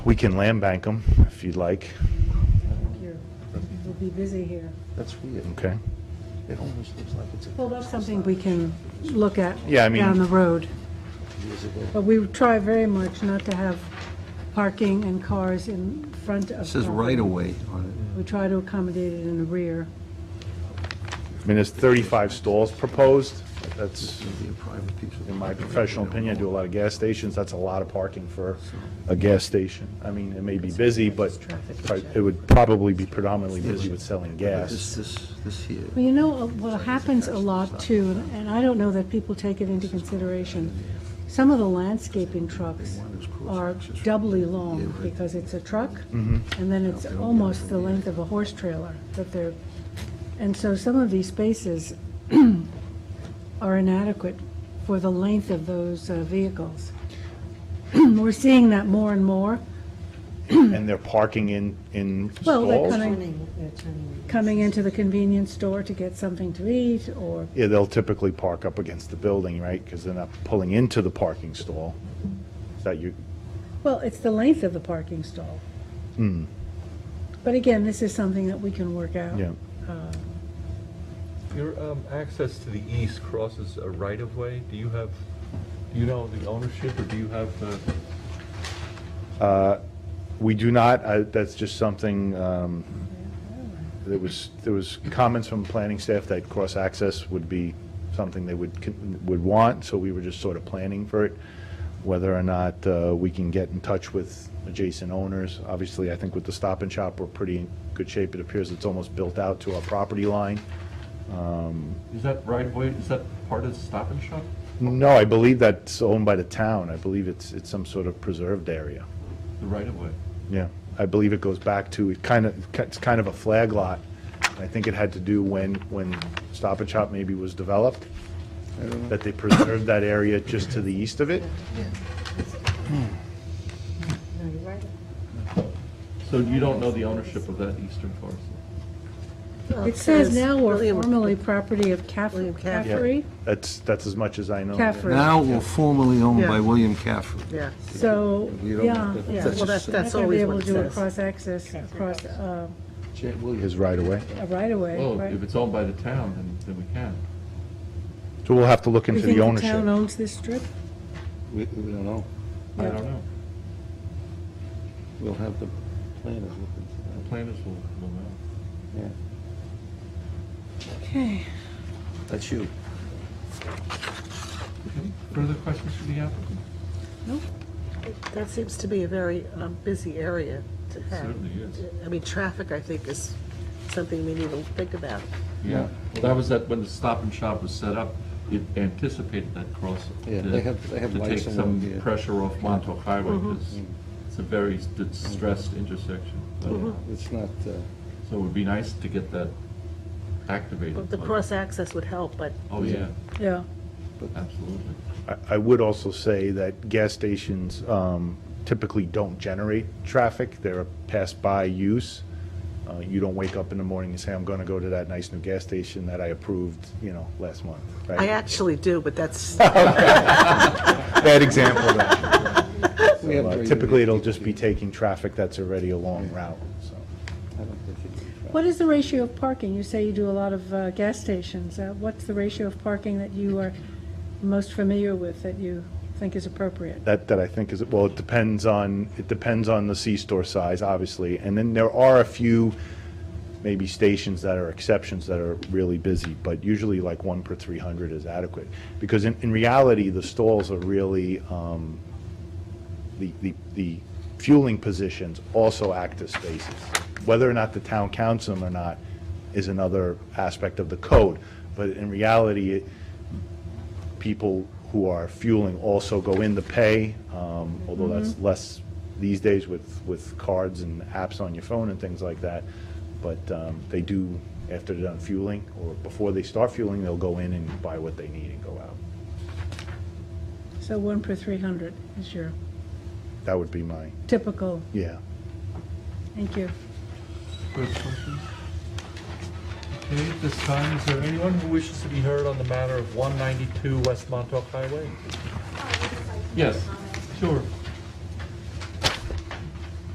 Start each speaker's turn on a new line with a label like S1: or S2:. S1: We can land bank them if you'd like,
S2: You're, you'll be busy here.
S3: That's weird.
S1: okay?
S3: It almost looks like it's a
S2: Well, that's something we can look at
S1: Yeah, I mean-
S2: down the road.
S3: years ago.
S2: But we try very much not to have parking and cars in front of.
S4: It says
S2: property.
S4: right away on
S2: We try to accommodate it in the rear.
S1: I mean, there's 35 stalls proposed. That's,
S4: it, be a private piece of.
S1: in my professional opinion, I do a lot of gas stations, that's a lot of parking for a gas station. I mean, it may be busy, but it would probably be predominantly busy with selling
S4: This,
S1: gas.
S4: this, this here.
S2: Well, you know, uh, what happens a lot too, and- and I don't know that people take it into consideration, some of the landscaping trucks are doubly long because it's a truck, and then it's almost the length of a horse trailer that they're, and so some of these spaces are inadequate for the length of those uh, vehicles. We're seeing that more and more,
S1: And they're parking in, in
S2: Well, they're
S1: stalls?
S2: coming- coming into the convenience store to get something to eat or
S1: Yeah, they'll typically park up against the building, right? Because they're not pulling into the parking stall. Is that you,
S2: Well, it's the length of the parking stall.
S1: Hmm.
S2: But again, this is something that we can work out.
S1: yeah.
S5: Your um, access to the east crosses a right-of-way. Do you have, do you know the ownership, or do you have the,
S1: Uh, We do not, I- that's just something, um, there was, there was comments from planning staff that cross-access would be something they would, con- would want, so we were just sort of planning for it, whether or not uh, we can get in touch with adjacent owners. Obviously, I think with the Stop and Shop, we're pretty in good shape. It appears it's almost built out to our property line. Um,
S5: is that right-of-way, is that part of the Stop and Shop?
S1: No, I believe that's owned by the town. I believe it's, it's some sort of preserved area.
S5: The right-of-way?
S1: Yeah, I believe it goes back to, it kind of, it's kind of a flag lot. I think it had to do when, when Stop and Shop maybe was developed, that they preserved that area just to the east of it.
S5: So you don't know the ownership of that eastern parcel?
S2: It says now we're
S6: William-
S2: formerly property of Caff-
S6: William Caff-
S1: Yeah.
S2: Caffrey,
S1: That's, that's as much as I know.
S2: Caffrey.
S4: Now we're formerly owned by
S6: Yeah.
S4: William Caffrey.
S6: Yeah,
S2: so,
S4: We don't-
S2: yeah.
S4: that-
S6: yeah,
S4: that's
S6: well, that's,
S4: just-
S6: that's
S2: Not gonna be
S6: always
S2: able
S6: what
S2: to
S6: it
S2: do a
S6: says.
S2: cross-access, cross, uh,
S4: Jet Williams.
S1: His right away.
S2: a right-of-way,
S5: Well,
S2: right?
S5: if it's owned by the town, then, then we can.
S1: So we'll have to look
S2: You
S1: into
S2: think
S1: the
S2: the town
S1: ownership.
S2: owns this strip?
S3: We, we don't know.
S5: I
S2: Yeah.
S5: don't know.
S3: We'll have the planners look into
S5: The planners will, will know.
S3: that. Yeah,
S2: Okay.
S3: that's you.
S5: Any Further questions for the applicant?
S6: That seems to be a very um, busy area to have.
S5: Certainly is.
S6: I mean, traffic, I think, is something we need to think about.
S5: Yeah. Well, that was that, when the Stop and Shop was set up, it anticipated that cross.
S3: Yeah,
S5: to-
S3: they have- they have lights
S5: To take
S3: along Mm-hmm.
S5: some
S3: here.
S5: pressure off Montauk Highway, because it's a very
S3: Mm-hmm.
S5: distressed intersection. But-
S2: Mm-hmm.
S3: It's not, uh,
S5: So it would be nice to get that
S6: But
S5: activated.
S6: The
S5: but-
S6: cross-access would help, but
S5: Oh, yeah,
S2: Yeah,
S5: absolutely.
S1: I- I would also say that gas stations um, typically don't generate traffic. They're a pass-by use. Uh, You don't wake up in the morning and say, I'm going to go to that nice new gas station that I approved, you know, last month, right?
S6: I actually do, but that's,
S1: Bad example. though.
S3: we have very-
S1: Uh, Typically, it'll just be taking traffic that's already a long route, so.
S3: I don't think it-
S2: what is the ratio of parking? You say you do a lot of uh, gas stations, Uh, what's the ratio of parking that you are most familiar with, that you think is appropriate?
S1: That, that I think is, well, it depends on, it depends on the C-store size, obviously. And then there are a few, maybe stations that are exceptions that are really busy, but usually like one per 300 is adequate. Because in, in reality, the stalls are really, um, the, the, the fueling positions also act as spaces. Whether or not the town counts them or not is another aspect of the code. But in reality, it- people who are fueling also go in to pay, um, although that's less these days with, with cards and apps on your phone and things like that. But um, they do, after they're done fueling, or before they start fueling, they'll go in and buy what they need and go out.
S2: So one per 300 is your
S1: That would be my,
S2: typical,
S1: yeah.
S2: thank you.
S5: Further questions? Okay, at this time, is there anyone who wishes to be heard on the matter of 192 West Montauk Highway? Yes, sure.